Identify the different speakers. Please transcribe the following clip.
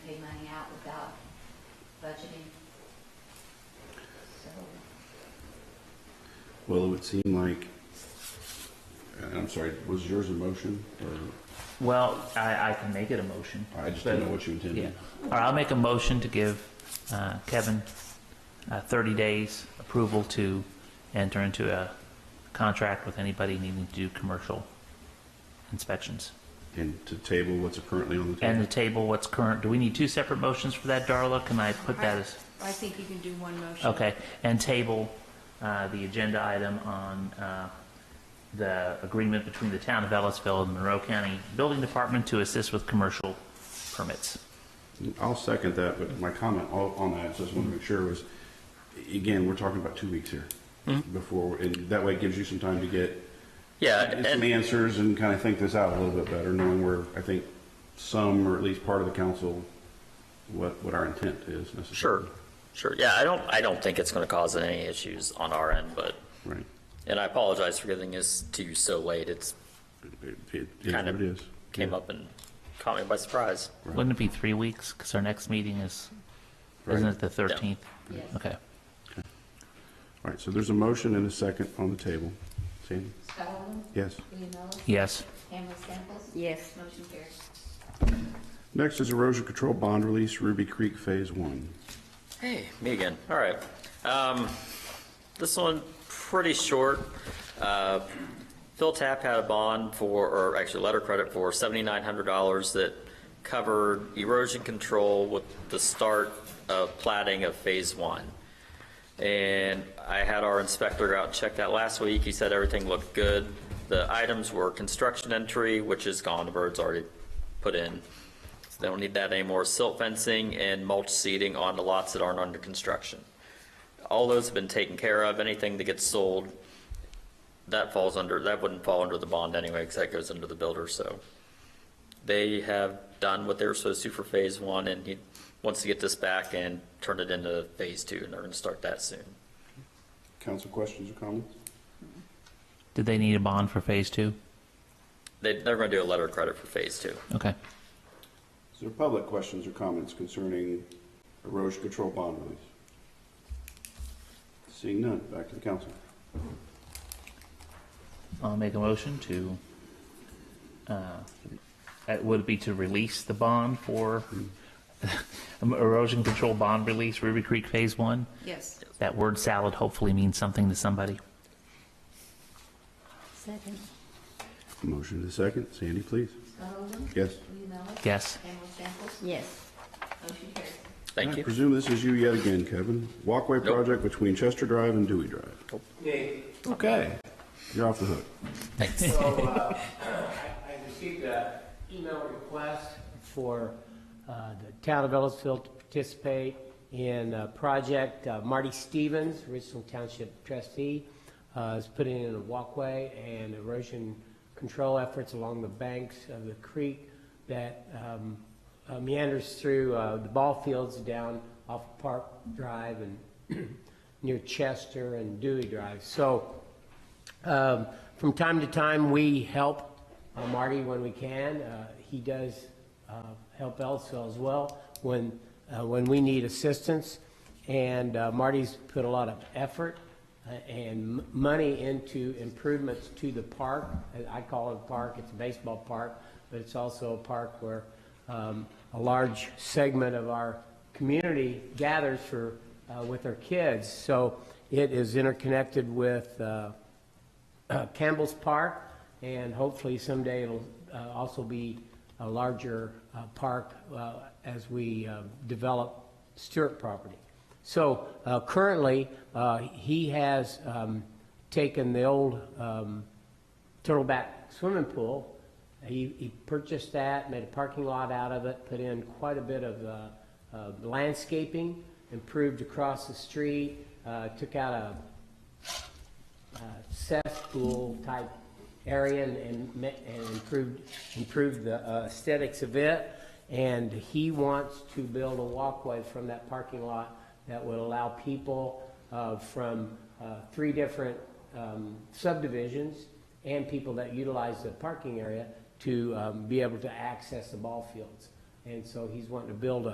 Speaker 1: actually. So,
Speaker 2: Well, it would seem like, and I'm sorry, was yours a motion? Or,
Speaker 3: Well, I, I can make it a motion.
Speaker 2: I just didn't know
Speaker 3: But-
Speaker 2: what you
Speaker 3: Yeah.
Speaker 2: intended.
Speaker 3: All right, I'll make a motion to give uh, Kevin uh, 30 days approval to enter into a contract with anybody needing to do commercial inspections.
Speaker 2: And to table what's currently on the
Speaker 3: And
Speaker 2: table?
Speaker 3: the table, what's current, do we need two separate motions for that, Darla? Can I put that as,
Speaker 1: I think you can do one motion.
Speaker 3: okay, and table uh, the agenda item on uh, the agreement between the town of Ellisville and Monroe County Building Department to assist with commercial permits.
Speaker 2: I'll second that, but my comment o- on that, so I just want to make sure, was, again, we're talking about two weeks here.
Speaker 4: Hmm?
Speaker 2: Before, and that way it gives you some time to get
Speaker 4: Yeah,
Speaker 2: get some
Speaker 4: Uh, and,
Speaker 2: answers and kind of think this out a little bit better, knowing where, I think, some, or at least part of the council, what, what our intent is necessarily.
Speaker 4: sure, sure, yeah, I don't, I don't think it's gonna cause any issues on our end, but,
Speaker 2: Right.
Speaker 4: and I apologize for getting this to you so late, it's,
Speaker 2: It- It is what
Speaker 4: Kind of
Speaker 2: it is.
Speaker 4: came
Speaker 2: Yeah.
Speaker 4: up and caught me by surprise.
Speaker 2: Right.
Speaker 3: Wouldn't it be three weeks? Because our next meeting is, isn't
Speaker 2: Right.
Speaker 3: it the 13th?
Speaker 1: Yes.
Speaker 3: Okay.
Speaker 2: All right, so there's a motion and a second on the table. Sandy?
Speaker 5: Scottleman?
Speaker 2: Yes.
Speaker 5: Leonella?
Speaker 3: Yes.
Speaker 5: Hamlin Samples?
Speaker 1: Yes.
Speaker 5: Motion carries.
Speaker 2: Next is erosion control bond release, Ruby Creek Phase One.
Speaker 4: Hey, me again. All right. Um, this one pretty short. Uh, Phil Tapp had a bond for, or actually letter credit for seventy-nine hundred dollars that covered erosion control with the start of plating of phase one. And I had our inspector go out and check that last week. He said everything looked good. The items were construction entry, which is gone, the bird's already put in. So They don't need that anymore. Silt fencing and mulch seeding on the lots that aren't under construction. All those have been taken care of. Anything that gets sold, that falls under, that wouldn't fall under the bond anyway, because that goes under the builder, so. They have done what they were supposed to for phase one, and he wants to get this back and turn it into phase two, and they're gonna start that soon.
Speaker 2: Council questions or comments?
Speaker 3: Did they need a bond for phase two?
Speaker 4: They, they're gonna do a letter of credit for phase two.
Speaker 3: Okay.
Speaker 2: Is there public questions or comments concerning erosion control bond release? Seeing none, back to the council.
Speaker 3: I'll make a motion to, uh, it would be to release the bond for erosion control bond release, Ruby Creek Phase One.
Speaker 1: Yes.
Speaker 3: That word salad hopefully means something to somebody.
Speaker 5: Second.
Speaker 2: Motion to the second. Sandy, please.
Speaker 5: Scottleman?
Speaker 2: Yes.
Speaker 5: Leonella?
Speaker 3: Yes.
Speaker 5: Hamlin Samples?
Speaker 1: Yes.
Speaker 5: Motion carries.
Speaker 4: Thank
Speaker 2: I
Speaker 4: you.
Speaker 2: presume this is you yet again, Kevin. Walkway
Speaker 4: Nope.
Speaker 2: project between Chester Drive and Dewey Drive. Okay. You're off the hook.
Speaker 6: So, uh, I I received an email request for uh, the town of Ellisville to participate in a project. Uh, Marty Stevens, original township trustee, uh, is putting in a walkway and erosion control efforts along the banks of the creek that um, uh, meanders through uh, the ball fields down off Park Drive and near Chester and Dewey Drive. So um, From time to time, we help uh, Marty when we can. Uh, He does uh, help Ellisville as well when, uh, when we need assistance. And uh, Marty's put a lot of effort uh, and m- money into improvements to the park. I I call it a park, it's a baseball park, but it's also a park where um, a large segment of our community gathers for, uh, with their kids. So it is interconnected with uh, uh, Campbell's Park, and hopefully someday it'll uh, also be a larger uh, park uh, as we uh, develop Stewart property. So uh, currently, uh, he has um, taken the old um, Turtleback Swimming Pool. He, he purchased that, made a parking lot out of it, put in quite a bit of uh, uh, landscaping, improved across the street, uh, took out a uh, cesspool type area and, and ma- and improved, improved the uh, aesthetics of it. And he wants to build a walkway from that parking lot that would allow people uh, from uh, three different um, subdivisions and people that utilize the parking area to um, be able to access the ball fields. And so he's wanting to build a